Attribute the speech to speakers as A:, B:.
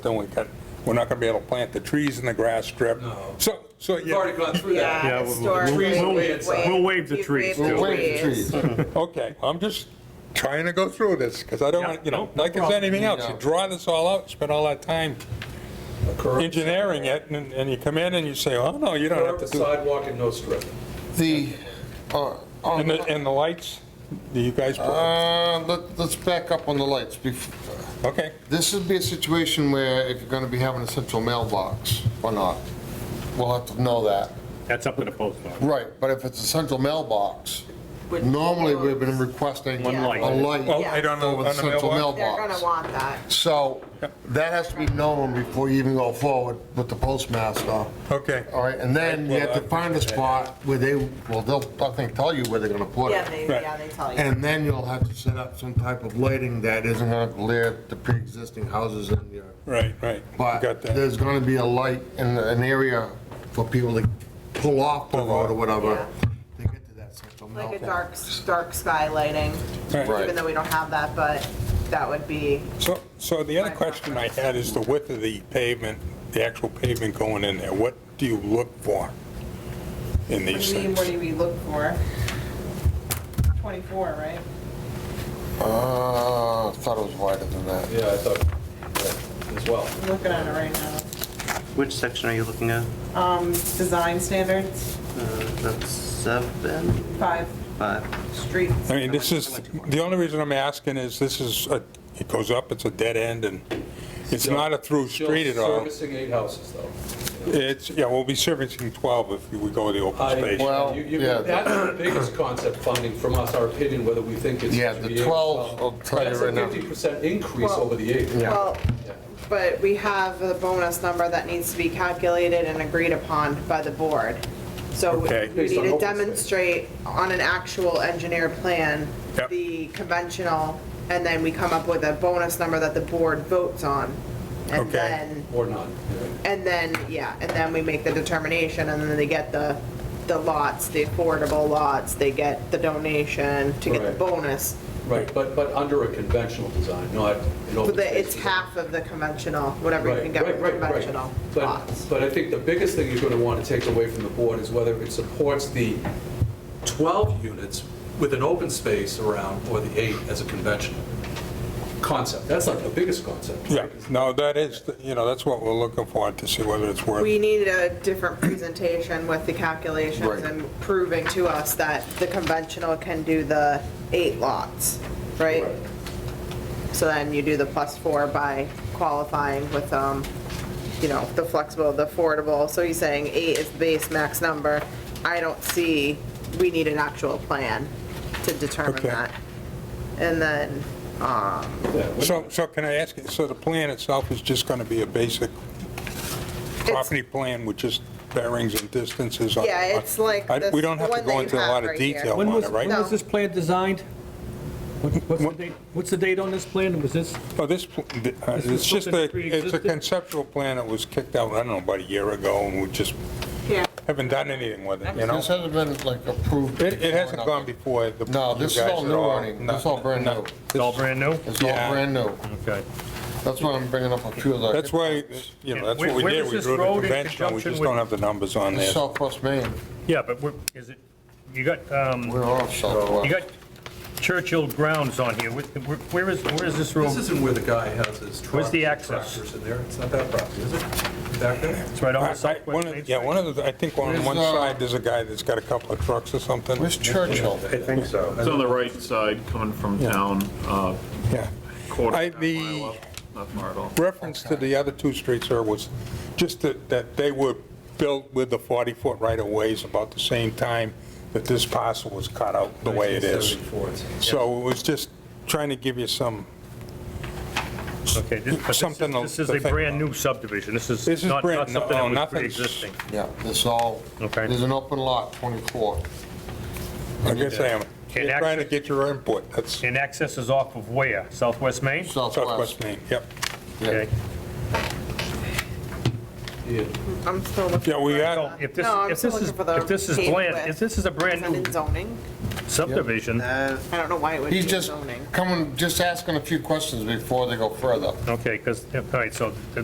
A: then we cut, we're not gonna be able to plant the trees in the grass strip.
B: No.
A: So, so,
B: We've already
A: yeah,
B: gone through that.
C: Yeah, we'll-
D: historically,
B: we'll-
D: we've
B: we'll
D: waived-
C: waive the
D: you've
C: trees,
D: waived
C: too.
D: the
C: We'll
D: trees.
A: okay, I'm just trying to go through this, because I don't want, you know, like it's anything else, you draw this all out, spend all that time engineering it, and, and you come in and you say, oh, no, you don't have
B: Curb,
A: to do.
B: sidewalk, and no strip.
E: The, uh, on,
A: And the, and the lights, do you guys,
E: uh, let- let's back up on the lights. Bef-
A: okay,
E: This would be a situation where if you're gonna be having a central mailbox or not, we'll have to know that.
C: That's up to the post office.
E: Right, but if it's a central mailbox,
D: With
E: normally we've been
D: roads.
E: requesting
C: One
E: a
C: light.
E: light
A: well, Oh, I don't know,
E: over
A: on
E: the
A: the
E: central
A: mailbox.
D: They're gonna
E: mailbox.
D: want that.
E: So that has to be known before you even go forward with the postmaster.
A: Okay,
E: All right, and then you have to find a spot where they, well, they'll, I think, tell you where they're gonna put it.
D: Yeah, they,
A: Right.
D: yeah, they tell you.
E: And then you'll have to set up some type of lighting that isn't gonna glare at the pre-existing houses in your,
A: right, right, You
E: but
A: got that.
E: there's gonna be a light in an area for people to pull off the road or whatever. They get to that central
D: Like a
E: meltdown.
D: dark, dark sky lighting,
A: Right.
D: even though we don't have that, but that would be,
A: So, so the other question I had is the width of the pavement, the actual pavement going in there, what do you look for in
F: What do
A: these
F: you mean,
A: things?
F: what do we look for? 24, right?
E: Uh, I thought it was wider than that.
B: Yeah, I thought, yeah, as well.
F: I'm looking at it right now.
G: Which section are you looking at?
F: Um, design standards,
G: Uh, That's seven,
F: five
G: five.
F: streets.
A: I mean, this is, the only reason I'm asking is this is, a- it goes up, it's a dead end, and it's not a through
B: Still
A: street at all.
B: Servicing eight houses, though.
A: It's, yeah, we'll be servicing 12 if we go to the open
B: I-
A: space.
E: Well,
B: you- you-
E: yeah.
B: That's the biggest concept funding from us, our opinion, whether we think it's.
E: Yeah,
B: should
E: the
B: be eight or
E: 12, I'll tell you right now.
B: That's a 50% increase
F: Well-
B: over the eight.
D: well, but we have the bonus number that needs to be calculated and agreed upon by the board. So we-
A: Okay.
D: we
B: Based
D: need
B: on
D: to
B: open space.
D: demonstrate on an actual engineered plan,
A: Yep.
D: the conventional, and then we come up with a bonus number that the board votes on.
A: Okay.
D: And then
B: Or not. yeah.
D: And then, yeah, and then we make the determination, and then they get the, the lots, the affordable lots, they get the donation to get the
B: Right.
D: bonus.
B: Right, but, but under a conventional design, not an open space.
D: But the- it's
B: design.
D: half of the conventional, whatever you can
B: Right,
D: get
B: right,
D: with
B: right, right.
D: conventional
B: But,
D: lots.
B: but I think the biggest thing you're going to want to take away from the board is whether it supports the 12 units with an open space around, or the eight as a conventional concept. That's like the biggest concept.
A: Yeah,
B: right?
A: no, that is, you know, that's what we're looking for, to see whether it's worth.
D: We need a different presentation with the calculations
E: Right.
D: and proving to us that the conventional can do the eight lots, right?
B: Right.
D: So then you do the plus four by qualifying with, um, you know, the flexible, the affordable. So he's saying eight is the base max number. I don't see, we need an actual plan to determine
A: Okay.
D: that. And then, um,
B: Yeah, what-
A: So, so can I ask, you- so the plan itself is just going to be a basic property plan with just bearings and distances on it?
D: Yeah, it's like
A: I- We
D: this-
A: don't have
D: the
A: to
D: one that
A: go
D: you
A: into a
D: have
A: lot of
D: right here.
A: detail
H: When
A: on
H: was,
A: it,
H: when
A: right?
D: No.
H: was this plan designed? What- What's the date, what's the date on this plan? Was this,
A: Oh, this, pl- th- uh,
H: This is
A: it's just
H: something
A: a,
H: that
A: it's a
H: pre-existed?
A: conceptual plan that was kicked out, I don't know, about a year ago, and we just
D: yeah,
A: haven't done anything with it, you know?
E: This hasn't been like approved.
A: It, it hasn't
E: before,
A: gone before the.
E: No, this is
A: you guys
E: all
A: at
E: new, Ernie.
A: No,
E: This is all brand
A: no.
E: new.
H: it's all brand new?
E: It's all
A: Yeah.
E: brand new.
H: Okay.
E: That's why I'm bringing up a few of the.
A: That's why, you know, that's what we
H: Where
A: did,
H: is
A: we
H: this
A: drew the
H: road in
A: conventional, we
H: conjunction
A: just
H: with-
A: don't have the numbers on there.
E: Southwest Maine,
H: Yeah, but we're, is it, you got, um,
E: we're off
H: you
E: Southwest.
H: got Churchill grounds on here. Wh- wh- Where is, where is this
B: This
H: road?
B: isn't where the guy has his trucks.
H: Where's the
B: and
H: access?
B: Tractors in there. It's not that property, is it? Back there?
H: It's right on the
A: I- I- one
H: southwest
A: of-
H: main
A: Yeah, one
H: side.
A: of the, I think on
E: Where's,
A: one
E: uh,
A: side, there's a guy that's got a couple of trucks or something.
E: Where's Churchill?
B: I
H: think so.
I: It's on the right side, coming from town, uh,
A: Yeah.
I: quarter
A: I-
I: of a
A: the-
I: mile up, not far at all.
A: Reference to the other two streets there was just that, that they were built with the 40-foot right-of-ways about the same time that this parcel was cut out the way it is.
B: 1974, it's-
A: So it was just trying to give you some,
H: Okay, this- but this is-
A: something to-
H: this is
A: to
H: a
A: think
H: brand-new subdivision. This is
A: This is
H: not not
A: brand-
H: something
A: no,
H: that was
A: nothing's-
H: pre-existing.
E: Yeah, this all,
H: Okay.
E: there's an open lot, 24.
A: I guess I am,
H: And
A: You're trying to
H: actually-
A: get your input, that's
H: And access is off of where? Southwest Main?
E: Southwest.
A: Southwest Maine, yep.
H: Okay.
B: Yeah.
D: I'm still looking.
A: Yeah, we
D: for
A: got-
D: the-
H: So if this,
D: No, I'm
H: if
D: still
H: this is,
D: looking for the
H: if this is
D: paved
H: bland,
D: width.
H: if this is a
D: Is that
H: brand-new
D: in zoning?
H: subdivision,
G: Uh,
D: I don't know why it would be
E: He's
D: in
E: just
D: zoning.
E: coming, just asking a few questions before they go further.
H: okay, because, all right, so the